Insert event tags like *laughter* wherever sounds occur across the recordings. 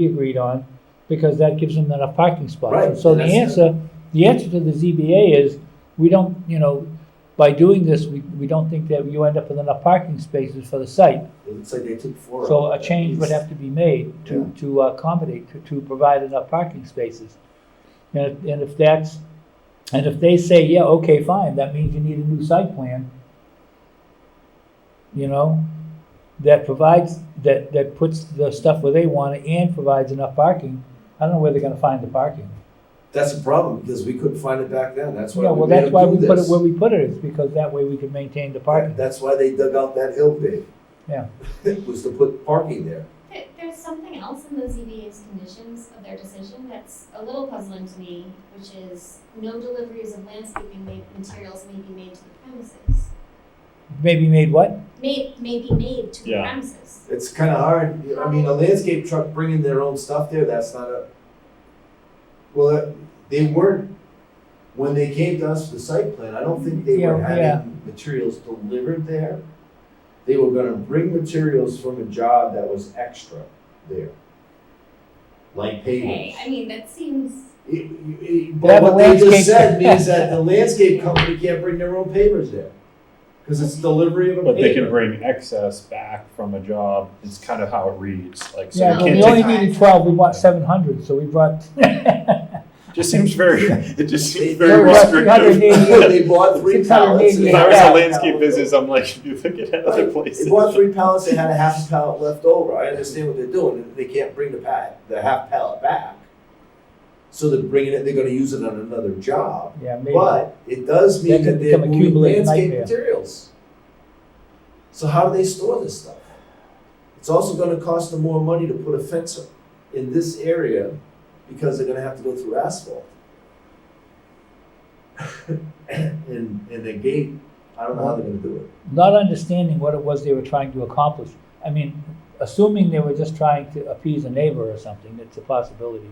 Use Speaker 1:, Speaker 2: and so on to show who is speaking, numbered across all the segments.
Speaker 1: be agreed on, because that gives them enough parking spots.
Speaker 2: Right,
Speaker 1: So the
Speaker 2: and that's-
Speaker 1: answer, the answer to the ZBA is, we don't, you know, by doing this, we, we don't think that you end up with enough parking spaces for the site.
Speaker 2: It looks like they took four.
Speaker 1: So
Speaker 2: out,
Speaker 1: a
Speaker 2: at
Speaker 1: change would
Speaker 2: least.
Speaker 1: have to be made to, to accommodate, to, to provide enough parking spaces. And, if- and if that's, and if they say, yeah, okay, fine, that means you need a new site plan, you know, that provides, that, that puts the stuff where they want it and provides enough parking, I don't know where they're gonna find the parking.
Speaker 2: That's a problem, because we couldn't find it back then, that's why
Speaker 1: Yeah,
Speaker 2: we
Speaker 1: well,
Speaker 2: made
Speaker 1: that's why
Speaker 2: them
Speaker 1: we
Speaker 2: do
Speaker 1: put it
Speaker 2: this.
Speaker 1: where we put it, is because that way we can maintain the
Speaker 2: That-
Speaker 1: parking.
Speaker 2: That's why they dug out that hill pit. *laughs*
Speaker 1: Yeah.
Speaker 2: Was to put parking there.
Speaker 3: There, there's something else in the ZBA's conditions of their decision that's a little puzzling to me, which is no deliveries of landscaping ma- materials may be made to the premises.
Speaker 1: Maybe made what?
Speaker 3: May, may be made to the
Speaker 4: Yeah.
Speaker 3: premises.
Speaker 2: It's kinda hard, I mean, a landscape truck bringing their own stuff there, that's not a. Well, that- they weren't, when they came to us for the site plan, I don't think they were
Speaker 1: Yeah, yeah.
Speaker 2: having materials delivered there. They were gonna bring materials from a job that was extra there. Like pavers.
Speaker 3: Okay, I mean, that seems,
Speaker 2: It- it-
Speaker 1: They have
Speaker 2: But
Speaker 1: a
Speaker 2: what they
Speaker 1: landscape-
Speaker 2: just said
Speaker 1: *laughs*
Speaker 2: means that the landscape company can't bring their own pavers there. Cause it's delivery of a paver.
Speaker 4: But they can bring excess back from a job, is kind of how it reads, like, so
Speaker 1: Yeah,
Speaker 4: you
Speaker 1: but we
Speaker 4: can't
Speaker 1: only
Speaker 4: take,
Speaker 3: take-
Speaker 1: needed twelve, we bought seven hundred, so we brought. *laughs*
Speaker 4: just seems very, it just
Speaker 2: They-
Speaker 4: seems very
Speaker 1: they're about
Speaker 4: *laughs*
Speaker 1: 380.
Speaker 4: restrictive.
Speaker 2: They bought three pallets. and
Speaker 4: If
Speaker 2: they
Speaker 4: I
Speaker 2: had
Speaker 4: was
Speaker 2: half
Speaker 4: a
Speaker 2: a
Speaker 4: landscape
Speaker 2: pallet
Speaker 4: business, I'm like, *laughs* you look at other
Speaker 2: Right.
Speaker 4: places.
Speaker 2: They bought three pallets, they had a half pallet left over, I understand what they're doing, and they can't bring the pa, the half pallet back. So they're bringing it, they're gonna use it on another job,
Speaker 1: Yeah, maybe.
Speaker 2: but it does mean
Speaker 1: That
Speaker 2: that
Speaker 1: could
Speaker 2: they're
Speaker 1: become a
Speaker 2: moving
Speaker 1: cumulative
Speaker 2: landscape
Speaker 1: nightmare.
Speaker 2: materials. So how do they store this stuff? It's also gonna cost them more money to put a fence up in this area, because they're gonna have to go through asphalt. *laughs* And, and the gate, I don't know how they're gonna do it.
Speaker 1: not understanding what it was they were trying to accomplish. I mean, assuming they were just trying to appease a neighbor or something, it's a possibility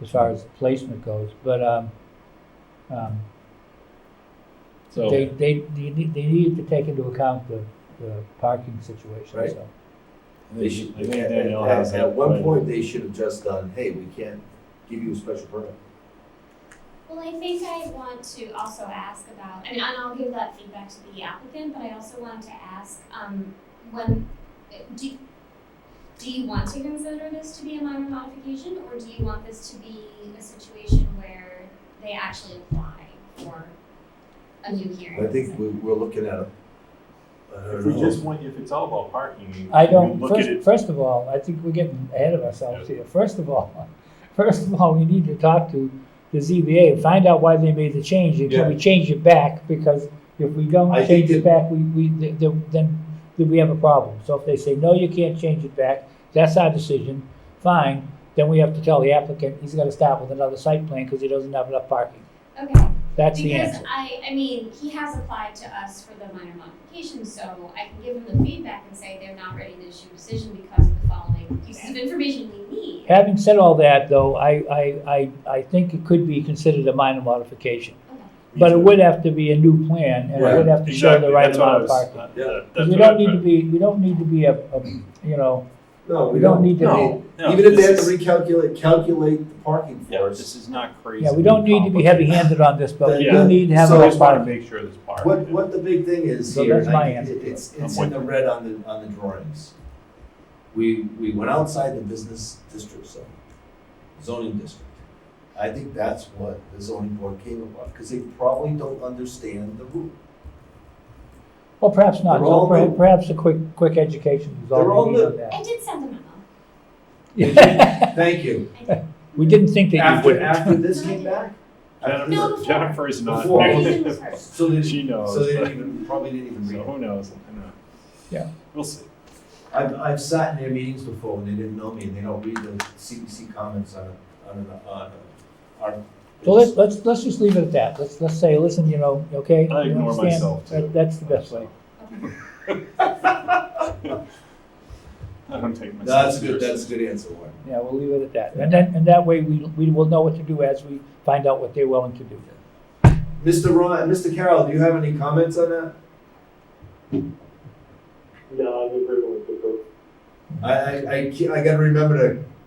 Speaker 1: as far as placement goes, but, um, um,
Speaker 4: *laughs* So,
Speaker 1: they, they, they need, they needed to take into account the, the parking situation,
Speaker 2: Right.
Speaker 1: so.
Speaker 2: They should,
Speaker 4: I think
Speaker 2: at,
Speaker 4: Danielle
Speaker 2: at-
Speaker 4: has
Speaker 2: at
Speaker 4: that
Speaker 2: one
Speaker 4: plan.
Speaker 2: point, they should have just done, hey, we can't give you a special permit.
Speaker 3: well, I think I want to also ask about, and, and I'll give that feedback to the applicant, but I also wanted to ask, um, when, do, do you want to consider this to be a minor modification, or do you want this to be a situation where they actually apply for a new hearing?
Speaker 2: I think we, we're looking at a. I don't
Speaker 4: if we
Speaker 2: know.
Speaker 4: just want, if it's all about parking, you
Speaker 1: I don't,
Speaker 4: look at
Speaker 1: first,
Speaker 4: it,
Speaker 1: first of all, I think we're getting ahead of ourselves here. First of all, *laughs* first of all, we need to talk to the ZBA and find out why they made the change, and can we change it back? Because if we don't
Speaker 2: I think
Speaker 1: change it back, we, we, th- th- then, then we have a problem. So if they say, no, you can't change it back, that's our decision, fine, then we have to tell the applicant, he's gotta start with another site plan, because he doesn't have enough parking.
Speaker 3: Okay,
Speaker 1: That's the
Speaker 3: because
Speaker 1: answer.
Speaker 3: I, I mean, he has applied to us for the minor modification, so I can give him the feedback and say they're not ready to issue a decision because of the following pieces of information we need.
Speaker 1: Having said all that, though, I, I, I, I think it could be considered a minor modification. But it would have to be a new plan, and it would have to show the
Speaker 4: exactly,
Speaker 1: right
Speaker 4: that's what I
Speaker 1: amount of
Speaker 4: was,
Speaker 1: parking.
Speaker 4: uh,
Speaker 2: Yeah.
Speaker 4: that- that's
Speaker 1: We
Speaker 4: what I
Speaker 1: don't need to
Speaker 4: tried-
Speaker 1: be, we don't need to be a, a- you know,
Speaker 2: No,
Speaker 1: we
Speaker 2: we
Speaker 1: don't
Speaker 2: don't.
Speaker 1: need
Speaker 2: I
Speaker 1: to
Speaker 2: mean,
Speaker 4: No, no,
Speaker 2: Even if they
Speaker 4: this
Speaker 2: have to
Speaker 4: is-
Speaker 2: recalculate, calculate the parking
Speaker 4: Yeah,
Speaker 2: for us,
Speaker 4: this is not
Speaker 1: be,
Speaker 4: crazy.
Speaker 1: yeah, we don't need to be heavy-handed on this, but we do
Speaker 4: Yeah.
Speaker 1: need to
Speaker 4: I
Speaker 1: have
Speaker 2: So-
Speaker 1: enough
Speaker 4: just want to
Speaker 1: parking.
Speaker 4: make sure there's parking.
Speaker 2: what, what the big thing is
Speaker 1: So
Speaker 2: here,
Speaker 1: that's
Speaker 2: and I-
Speaker 1: my answer to
Speaker 2: it's,
Speaker 4: it.
Speaker 2: it's
Speaker 4: I'm
Speaker 2: in the
Speaker 4: with you.
Speaker 2: red on the, on the drawings. We, we went outside the business district zone, zoning district. I think that's what the zoning board came about, because they probably don't understand
Speaker 1: *laughs*
Speaker 2: the rule.
Speaker 1: Well, perhaps not,
Speaker 2: They're
Speaker 1: so
Speaker 2: all
Speaker 1: per-
Speaker 2: new.
Speaker 1: perhaps a quick, quick education is
Speaker 2: They're
Speaker 1: all
Speaker 2: all
Speaker 1: we need
Speaker 2: new.
Speaker 1: on
Speaker 3: I
Speaker 1: that.
Speaker 3: did send him a memo.
Speaker 2: Thank you.
Speaker 1: *laughs* We didn't think that you
Speaker 2: After,
Speaker 1: would.
Speaker 2: after this came back?
Speaker 4: Jennifer,
Speaker 3: No, before.
Speaker 4: Jennifer is not
Speaker 2: Before.
Speaker 3: Everything
Speaker 4: new.
Speaker 3: was first.
Speaker 2: So they,
Speaker 4: she knows.
Speaker 2: so they
Speaker 4: but-
Speaker 2: didn't even, probably didn't even
Speaker 4: *laughs* so
Speaker 2: read it.
Speaker 4: who knows? I know.
Speaker 1: Yeah.
Speaker 4: We'll
Speaker 2: *laughs*
Speaker 4: see.
Speaker 2: I've, I've sat in their meetings before when they didn't know me and they don't read the CPC comments on, a- on, a- on, a- our.
Speaker 1: So let's, let's, let's just leave it at that, let's, let's say, listen, you know, okay?
Speaker 4: I
Speaker 1: you
Speaker 4: ignore
Speaker 1: understand?
Speaker 4: myself,
Speaker 1: That-
Speaker 4: too.
Speaker 1: That's the best way.
Speaker 4: I don't take myself.
Speaker 2: No, *laughs* that's a good,
Speaker 4: seriously.
Speaker 2: that's a good answer, Warren.
Speaker 1: Yeah, we'll leave it at that. And then, and that way, we, we will know what to do as we find out what they're willing to do.
Speaker 2: Mr. Ron, Mr. Carroll, do you have any comments on that?
Speaker 5: No, I'm agreeing with the group.
Speaker 2: I, I, I, can't- I gotta remember to